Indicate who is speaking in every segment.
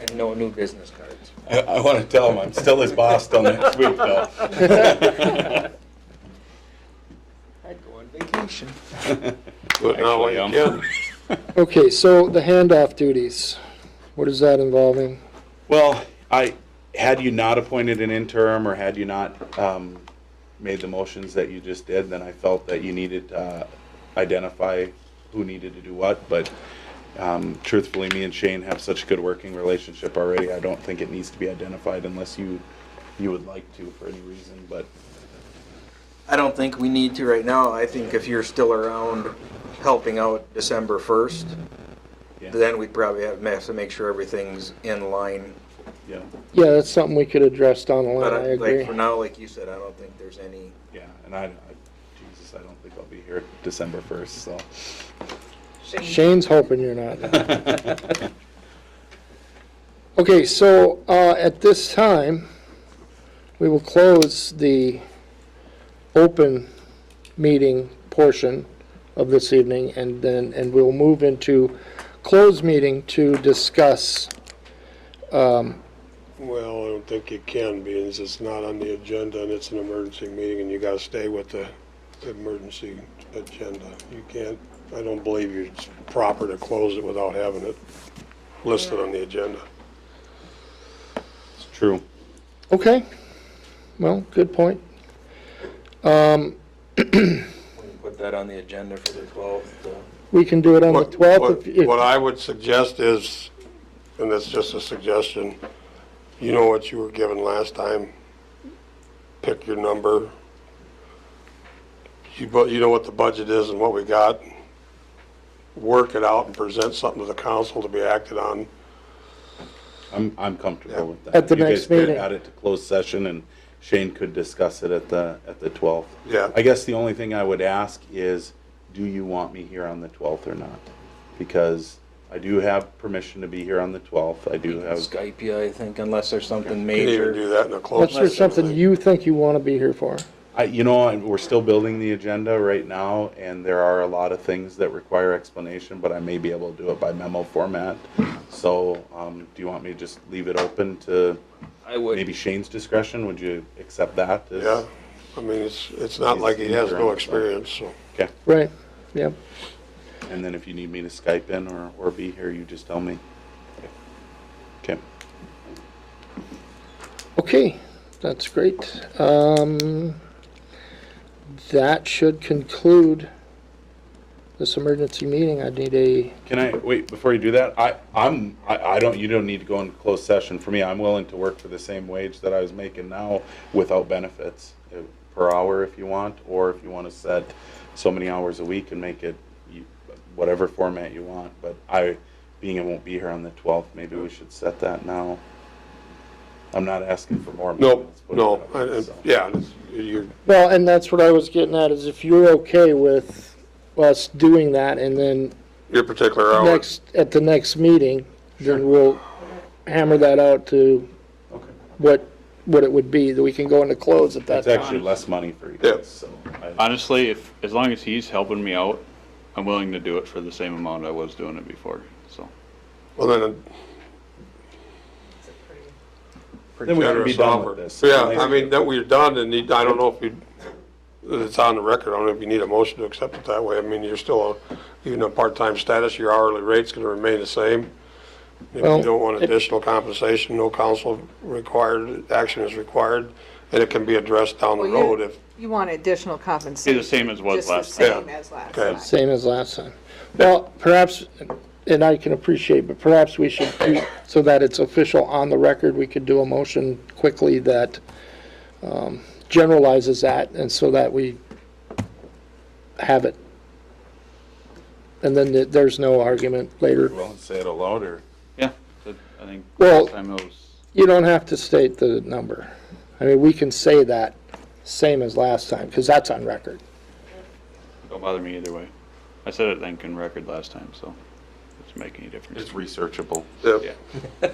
Speaker 1: And no new business cards.
Speaker 2: I, I want to tell him I'm still his boss till next week, though.
Speaker 1: I'd go on vacation.
Speaker 3: But now I
Speaker 2: Actually,
Speaker 3: can.
Speaker 2: um,
Speaker 4: Okay, so the handoff duties, what is that involving?
Speaker 2: Well, I, had you not appointed an interim, or had you not um, made the motions that you just did, then I felt that you needed to uh, identify who needed to do what, but um, truthfully, me and Shane have such a good working relationship already, I don't think it needs to be identified unless you, you would like to for any reason, but
Speaker 1: I don't think we need to right now. I think if you're still around helping out December first,
Speaker 2: Yeah.
Speaker 1: then we'd probably have have to make sure everything's in line.
Speaker 2: yeah,
Speaker 4: Yeah, that's something we could address down the line,
Speaker 1: But
Speaker 4: I
Speaker 1: I- like
Speaker 4: agree.
Speaker 1: for now, like you said, I don't think there's any,
Speaker 2: yeah, and I, I- Jesus, I don't think I'll be here December 1st, so.
Speaker 4: Shane's hoping you're not. Okay, so, uh, at this time, we will close the open meeting portion of this evening and then, and we'll move into closed meeting to discuss, um,
Speaker 3: Well, I don't think you can, being as it's not on the agenda and it's an emergency meeting and you gotta stay with the emergency agenda. You can't, I don't believe you- it's proper to close it without having it listed on the agenda.
Speaker 2: It's true.
Speaker 4: okay, well, good point. Um,
Speaker 1: we can put that on the agenda for the twelfth. uh,
Speaker 4: We can do it on the
Speaker 3: What-
Speaker 4: 12th.
Speaker 3: what-
Speaker 4: if- if-
Speaker 3: What I would suggest is, and that's just a suggestion, you know what you were given last time? Pick your number. You, bu- you know what the budget is and what we got. Work it out and present something to the council to be acted on.
Speaker 2: I'm, I'm comfortable with that.
Speaker 4: At the
Speaker 2: You guys
Speaker 4: next
Speaker 2: could
Speaker 4: meeting.
Speaker 2: Add it to closed session, and Shane could discuss it at the, at the 12th.
Speaker 3: Yeah.
Speaker 2: I guess the only thing I would ask is, do you want me here on the 12th or not? Because I do have permission to be here on the 12th, I do have,
Speaker 1: Skype you, I think, unless there's something
Speaker 3: You can even
Speaker 1: major.
Speaker 3: do that in a closed
Speaker 4: Unless
Speaker 3: session.
Speaker 4: there's something
Speaker 3: I
Speaker 4: you think you want to be here for.
Speaker 2: I, you know, I- we're still building the agenda right now, and there are a lot of things that require explanation, but I may be able to do it by memo format. So, um, do you want me to just leave it open to
Speaker 1: I would.
Speaker 2: maybe Shane's discretion? Would you accept that?
Speaker 3: think.
Speaker 2: as-
Speaker 3: Yeah, I mean, it's, it's not like he has no experience, so.
Speaker 2: Okay.
Speaker 4: Right, yep.
Speaker 2: And then if you need me to Skype in or, or be here, you just tell me. Okay.
Speaker 4: Okay, that's great. Um, That should conclude this emergency meeting. I need a,
Speaker 2: Can I, wait, before you do that, I, I'm, I, I don't, you don't need to go in closed session for me. I'm willing to work for the same wage that I was making now without benefits uh, per hour if you want, or if you want to set so many hours a week and make it you- whatever format you want. But I, being I won't be here on the 12th, maybe we should set that now. I'm not asking for more. money,
Speaker 3: No,
Speaker 2: let's put it
Speaker 3: no,
Speaker 2: that way,
Speaker 3: I- I-
Speaker 2: so.
Speaker 3: uh, yeah, it's- you're,
Speaker 4: well, and that's what I was getting at, is if you're okay with us doing that and then
Speaker 3: your particular hour.
Speaker 4: next, at the next meeting, then we'll hammer that out to
Speaker 2: Okay.
Speaker 4: what, what it would be, that we can go into close at that
Speaker 2: It's
Speaker 4: time.
Speaker 2: actually less money for you
Speaker 3: Yeah.
Speaker 2: guys, so. I-
Speaker 5: Honestly, if, as long as he's helping me out, I'm willing to do it for the same amount I was doing it before, so.
Speaker 3: Well, then,
Speaker 2: Then we can be
Speaker 3: generous
Speaker 2: done
Speaker 3: offer.
Speaker 2: with this.
Speaker 3: Yeah, I mean, that we're done, and you- I don't know if you, it's on the record, I don't know if you need a motion to accept it that way. I mean, you're still, a- even a part-time status, your hourly rate's gonna remain the same. If
Speaker 4: Well,
Speaker 3: you don't want
Speaker 4: it-
Speaker 3: additional compensation, no council required, action is required, and it can be addressed down the
Speaker 6: Well, you-
Speaker 3: road if,
Speaker 6: You want additional
Speaker 5: Be
Speaker 6: compensation?
Speaker 5: the same as was last
Speaker 6: Just
Speaker 3: time.
Speaker 5: time.
Speaker 6: the same as last
Speaker 3: Okay.
Speaker 6: time.
Speaker 4: Same as last time. Well, perhaps, and I can appreciate, but perhaps we should, do so that it's official on the record, we could do a motion quickly that um, generalizes that, and so that we have it. And then th- there's no argument later.
Speaker 2: Well, say it aloud, or?
Speaker 5: Yeah, but I think
Speaker 4: Well-
Speaker 5: last time it was,
Speaker 4: You don't have to state the number. I mean, we can say that, same as last time, because that's on record.
Speaker 5: don't bother me either way. I said it, I think, in record last time, so doesn't make any difference.
Speaker 2: researchable.
Speaker 3: if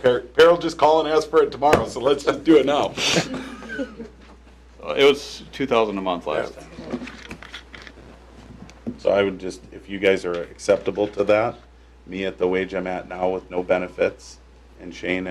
Speaker 2: Carol just call and ask for it tomorrow, so let's just do it now.
Speaker 5: Uh, It was two thousand a month last time.
Speaker 2: So I would just, if you guys are acceptable to that, me at the wage I'm at now with no benefits, and Shane